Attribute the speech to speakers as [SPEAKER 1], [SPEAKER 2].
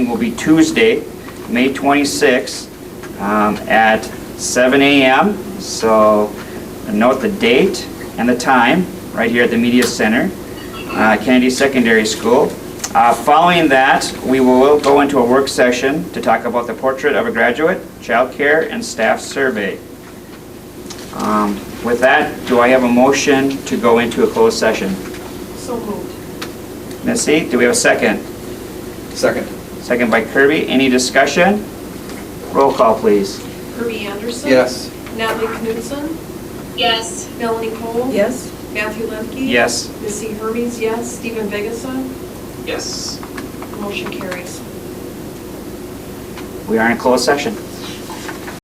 [SPEAKER 1] will be Tuesday, May 26th, um, at 7 a.m. So note the date and the time, right here at the Media Center, uh, Kennedy Secondary School. Uh, Following that, we will go into a work session to talk about the portrait of a graduate, childcare, and staff survey. Um, With that, do I have a motion to go into a closed session?
[SPEAKER 2] So moved.
[SPEAKER 1] Missy, do we have a second?
[SPEAKER 3] Second.
[SPEAKER 1] Second by Kirby. Any discussion? Roll call, please.
[SPEAKER 2] Kirby Anderson?
[SPEAKER 3] Yes.
[SPEAKER 2] Natalie Knudsen?
[SPEAKER 4] Yes.
[SPEAKER 2] Melanie Cole?
[SPEAKER 5] Yes.
[SPEAKER 2] Matthew Lemke?
[SPEAKER 1] Yes.
[SPEAKER 2] Missy Hermes, yes. Stephen Vigasa?
[SPEAKER 3] Yes.
[SPEAKER 2] Motion carries.
[SPEAKER 1] We are in closed session.